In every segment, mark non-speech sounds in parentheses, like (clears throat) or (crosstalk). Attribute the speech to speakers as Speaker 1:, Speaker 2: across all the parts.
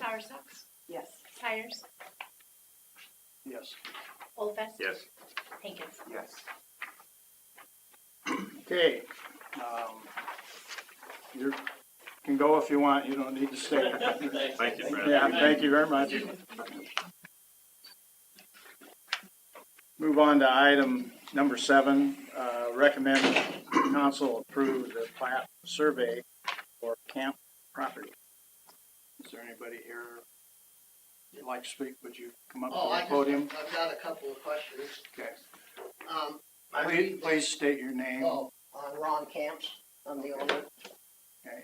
Speaker 1: Bower Socks,
Speaker 2: Yes.
Speaker 1: Hires,
Speaker 3: Yes.
Speaker 1: Olfest.
Speaker 4: Yes.
Speaker 1: Hankins.
Speaker 3: Yes. Okay, um, you can go if you want, you don't need to stay. (laughs)
Speaker 4: Thank you, Brad.
Speaker 3: Yeah, thank you very much. Move on to item number seven, uh, recommend council approve the plat survey for camp property. Is there anybody here you'd like to speak? Would you come up
Speaker 5: Oh,
Speaker 3: to the
Speaker 5: I just,
Speaker 3: podium?
Speaker 5: I've got a couple of questions.
Speaker 3: Okay.
Speaker 5: Um, I
Speaker 3: Please,
Speaker 5: read,
Speaker 3: please state your name
Speaker 5: oh, on Ron Camps, I'm the owner.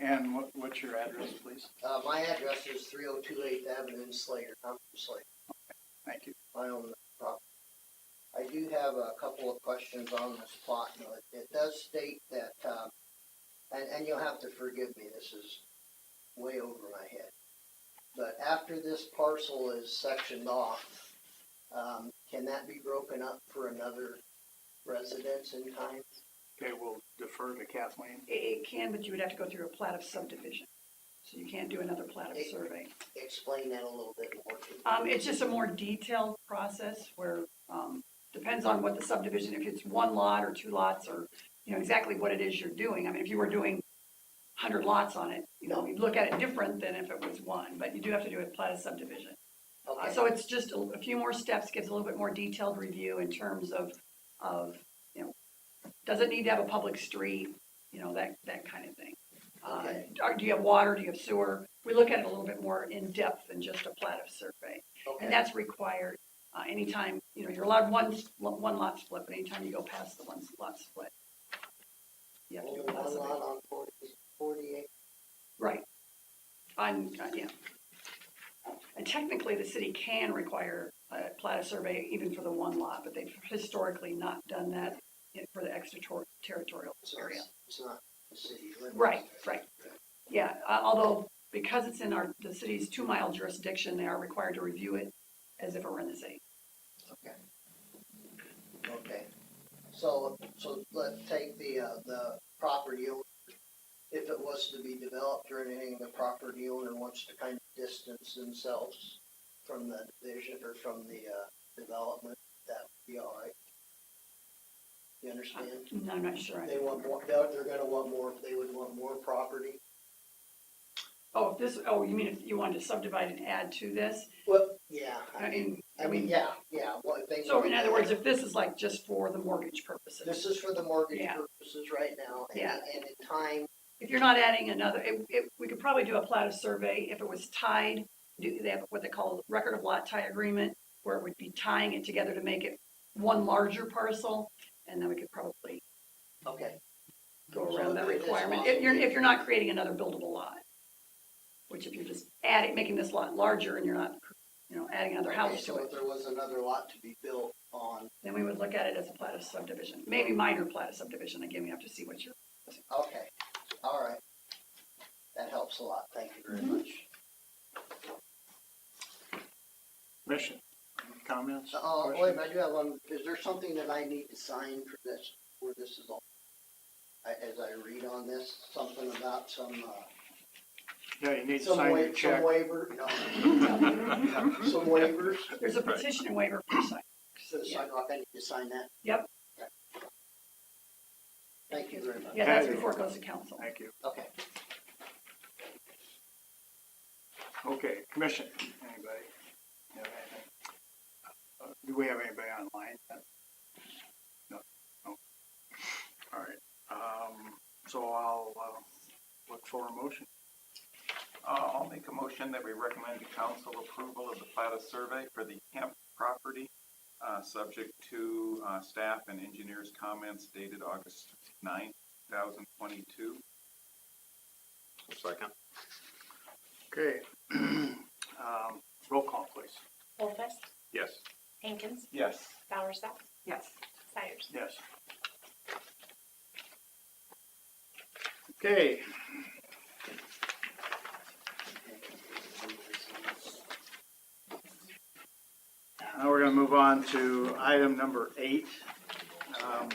Speaker 3: and what, what's your address, please?
Speaker 5: Uh, my address is three oh two eighth Avenue in Slater, I'm from Slater,
Speaker 3: Thank you.
Speaker 5: I own the property. I do have a couple of questions on this plot, you know, it, it does state that, um, and, and you'll have to forgive me, this is way over my head. But after this parcel is sectioned off, um, can that be broken up for another residence in time?
Speaker 3: Okay, we'll defer to Kathleen.
Speaker 2: It, it can, but you would have to go through a plat of subdivision. So you can't do another plat of survey.
Speaker 5: Explain that a little bit more. to me.
Speaker 2: Um, it's just a more detailed process where, um, depends on what the subdivision, if it's one lot or two lots or, you know, exactly what it is you're doing. I mean, if you were doing hundred lots on it, you know, you'd look at it different than if it was one, but you do have to do a plat of subdivision. Uh,
Speaker 5: Okay.
Speaker 2: So it's just a a few more steps, gives a little bit more detailed review in terms of, of, you know, does it need to have a public street, you know, that, that kind of thing. Uh,
Speaker 5: Okay.
Speaker 2: are- Do you have water, do you have sewer? We look at it a little bit more in depth than just a plat of survey. And
Speaker 5: Okay,
Speaker 2: that's required uh, anytime, you know, you're allowed one, s- one lot split, but anytime you go past the one lot split. You have to
Speaker 5: only
Speaker 2: do a plat
Speaker 5: one lot
Speaker 2: survey.
Speaker 5: on forty, forty-eight,
Speaker 2: Right. On, uh, yeah. And technically, the city can require a plat of survey even for the one lot, but they've historically not done that in- for the extraterritorial
Speaker 5: so
Speaker 2: area.
Speaker 5: it's, it's not the city limits.
Speaker 2: Right, right. Yeah, uh, although because it's in our, the city's two-mile jurisdiction, they are required to review it as if it were in the city.
Speaker 5: Okay, so, so let's take the, uh, the property owner. If it was to be developed or anything, the property owner wants to kind of distance themselves from the division or from the, uh, development, that would be all right. You understand?
Speaker 2: No, I'm not sure. I-
Speaker 5: They want more, they're, they're gonna want more, they would want more property.
Speaker 2: Oh, if this, oh, you mean if you wanted to subdivide and add to this?
Speaker 5: Well, yeah,
Speaker 2: I mean,
Speaker 5: I mean, yeah, yeah, well, they.
Speaker 2: so in other words, if this is like just for the mortgage purposes.
Speaker 5: This is for the mortgage
Speaker 2: Yeah.
Speaker 5: purposes right now, and,
Speaker 2: Yeah.
Speaker 5: and in time,
Speaker 2: If you're not adding another, it, it, we could probably do a plat of survey if it was tied, do, they have what they call record of lot tie agreement, where it would be tying it together to make it one larger parcel, and then we could probably
Speaker 5: okay,
Speaker 2: go
Speaker 5: So
Speaker 2: around that
Speaker 5: it is
Speaker 2: requirement,
Speaker 5: possible.
Speaker 2: if you're, if you're not creating another buildable lot. Which if you're just adding, making this lot larger and you're not, you know, adding another
Speaker 5: okay,
Speaker 2: house to
Speaker 5: so if
Speaker 2: it,
Speaker 5: there was another lot to be built on,
Speaker 2: then we would look at it as a plat of subdivision, maybe minor plat of subdivision, again, we have to see what you're.
Speaker 5: okay, all right. That helps a lot, thank you
Speaker 2: Mm-hmm.
Speaker 5: very much.
Speaker 3: Commission, comments?
Speaker 5: Uh, wait,
Speaker 3: questions?
Speaker 5: I do have one, is there something that I need to sign for this, where this is all? I, as I read on this, something about some, uh,
Speaker 3: Yeah, you need to
Speaker 5: some
Speaker 3: sign
Speaker 5: wa-
Speaker 3: your check.
Speaker 5: some waiver, no, some waivers,
Speaker 2: There's a
Speaker 4: Right.
Speaker 2: petition and waiver for site.
Speaker 5: so the sidewalk, I need to sign that?
Speaker 2: Yep.
Speaker 5: Okay. Thank you very much.
Speaker 2: Yeah, that's before it goes to council.
Speaker 3: Thank you.
Speaker 5: Okay.
Speaker 3: Okay, commission, anybody? have anything? Uh, Do we have anybody online? Uh, No, no. All right, um, so I'll, uh, look for a motion.
Speaker 6: Uh, I'll make a motion that we recommend to council approval of the plat of survey for the camp property, uh, subject to, uh, staff and engineers' comments dated August ninth, two thousand twenty-two.
Speaker 4: (laughs) Second?
Speaker 3: Okay, (clears throat) um, roll call, please.
Speaker 1: Olfest,
Speaker 4: Yes.
Speaker 1: Hankins,
Speaker 6: Yes.
Speaker 1: Bower Socks,
Speaker 2: Yes.
Speaker 1: Hires.
Speaker 3: Yes. Okay, now we're gonna move on to item number eight. Um,